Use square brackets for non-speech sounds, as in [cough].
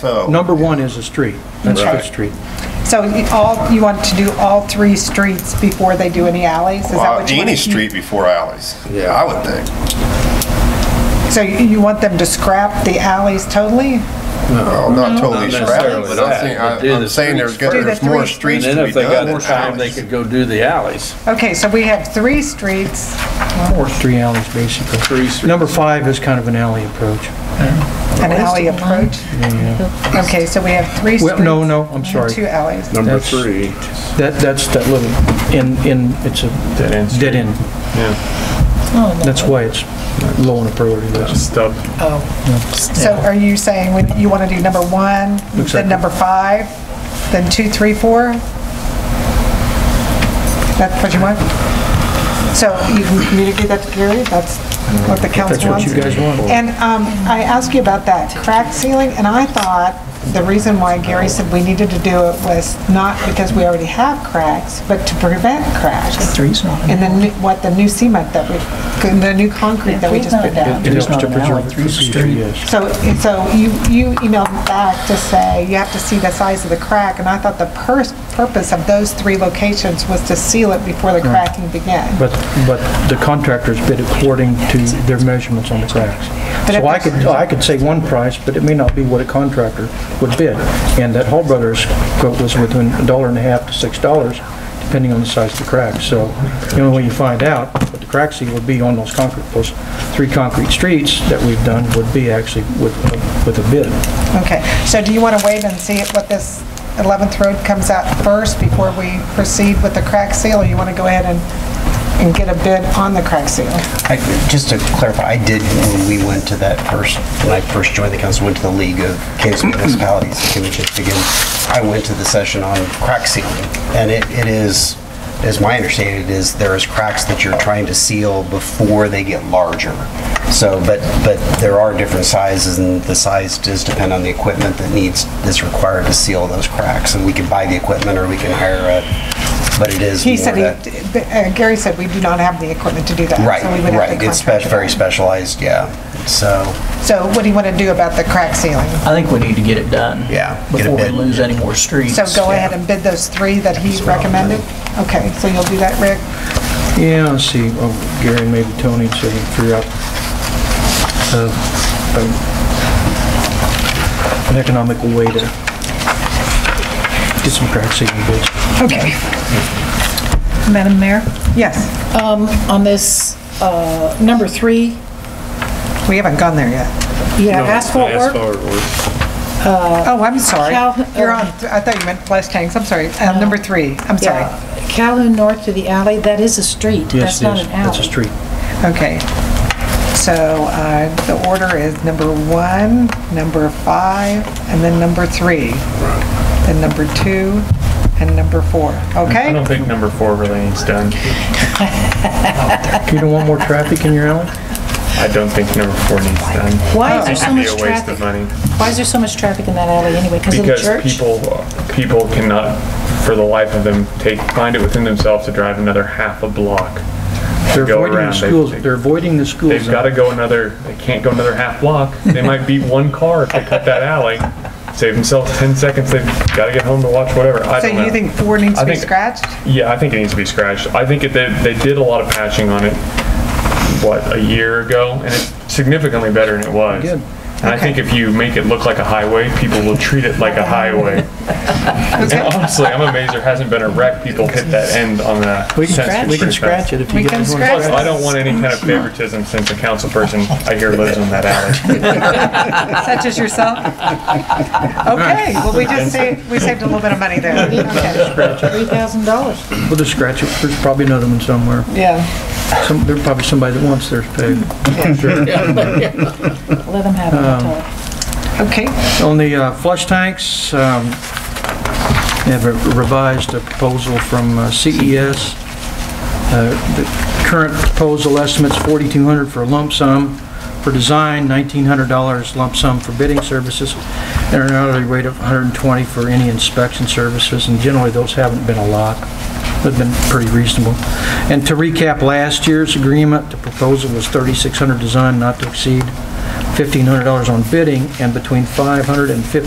So. Number one is a street. That's the Right. street. So you all, you want to do all three streets before they do any alleys? Is that Well, what you want? uh, Any street before alleys. Yeah. I would think. So you you want them to scrap the alleys totally? Well, Uh, not totally scrapping, Not necessarily, but but I'm saying, do the I- I'm saying there's, streets got- first. there's Do the more three- streets And to then be if they got done more than time, they alleys. could go do the alleys. Okay, so we have three streets. Or three alleys, basically. Three streets. Number five is kind of an alley approach. An alley approach? Okay, so we have three Well, streets. no, no, I'm sorry. Two alleys. Number That's- three. That, that's that little, in, in, it's a Dead end street. dead end. That's why it's low on the priority list. Stub. So are you saying we- you want to do number one, Looks then like- number five, then two, three, four? That's what you want? So you can communicate that to Gary? That's what the That's council what wants? you guys want. And um, I asked you about that crack ceiling, and I thought the reason why Gary said we needed to do it was not because we already have cracks, but to prevent cracks. And then new- what the new cement that we, the new concrete that we just put down. It helps to preserve it for the future, yes. So, so you, you emailed back to say you have to see the size of the crack, and I thought the pers- purpose of those three locations was to seal it before the cracking began. But, but the contractors bid according to their measurements on the cracks. But if So I there's- could, oh, I could say one price, but it may not be what a contractor would bid. And that Hall Brothers quote was within a dollar and a half to six dollars, depending on the size of the crack. So the only way you find out what the crack seal would be on those concrete, those three concrete streets that we've done would be actually with, with a bid. Okay, so do you want to wait and see what this 11th Road comes out first before we proceed with the crack seal, or you want to go ahead and, and get a bid on the crack seal? I- Just to clarify, I did, when we went to that first, when I first joined the council, went to the League of Kansas Mm-hmm. Municipalities, can we just begin? I went to the session on crack sealing, and it it is, as my understanding, it is, there is cracks that you're trying to seal before they get larger. So, but, but there are different sizes, and the size does depend on the equipment that needs, that's required to seal those cracks. And we can buy the equipment, or we can hire a, but it is He more said, that- he- uh, Gary said we do not have the equipment to do that. so Right, we would have to right. It's contract spe- very it. specialized, yeah. So, So what do you want to do about the crack sealing? I think we need to get it done. Yeah, get a Before we bid. lose any more streets. So go ahead and bid those three that he recommended? Okay, so you'll do that, Rick? Yeah, I'll see, oh, Gary and maybe Tony, so we can figure out uh, um, an economical way to get some crack sealing bids. Okay. Madam Mayor, Yes, on this, uh, number three, we haven't gone there yet. you have asphalt work? Oh, I'm sorry. Cal- You're on, uh, I thought you meant flash tanks, I'm sorry. Uh, Number three, I'm sorry. Yeah, Calhoun North to the alley, that is a street, Yes, that's it not is. an alley. That's a street. Okay. So uh, the order is number one, number five, and then number three. Then number two, and number four, I okay? don't think number four really needs done. You don't want more traffic in your alley? I don't think number four needs done. Why is there so It'd be much a waste of traffic? money. Why is there so much traffic in that alley anyway? Because of the Because church? people, people cannot, for the life of them, take, find it within themselves to drive another half a block. to They're go avoiding the around. They- schools, they- they're avoiding the schools. They've gotta go another, they can't go another half block. They might beat one car if they cut that alley. Save themselves ten seconds, they've gotta get home to watch whatever, I So don't know. you think four needs I to be think- scratched? Yeah, I think it needs to be scratched. I think it, they, they did a lot of patching on it, what, a year ago? And it's significantly better than it was. Good. And I think if you make it look like a highway, people will treat it like a [laughs] highway. And honestly, I'm amazed there hasn't been a wreck people hit that end on the We census can, we can pretty scratch fast. it if We you can guys want. scratch Plus, it. I don't want any kind of favoritism since a council person I hear lives in that alley. Such as yourself? [laughs] Okay, well, we just saved, we saved a little bit of money there. [laughs] Okay. $3,000. We'll just scratch it, there's probably another one somewhere. Yeah, Some, there's probably somebody that wants theirs paved. Let them have it, I'll tell you. okay. On the uh, flush tanks, um, they have a revised uh, proposal from uh, CES. Uh, The current proposal estimates 4,200 for a lump sum for design, $1,900 lump sum for bidding services, and an hourly rate of 120 for any inspection services, and generally, those haven't been a lot. They've been pretty reasonable. And to recap last year's agreement, the proposal was 3,600 design, not to exceed $1,500 on bidding, and between 500 and 1,500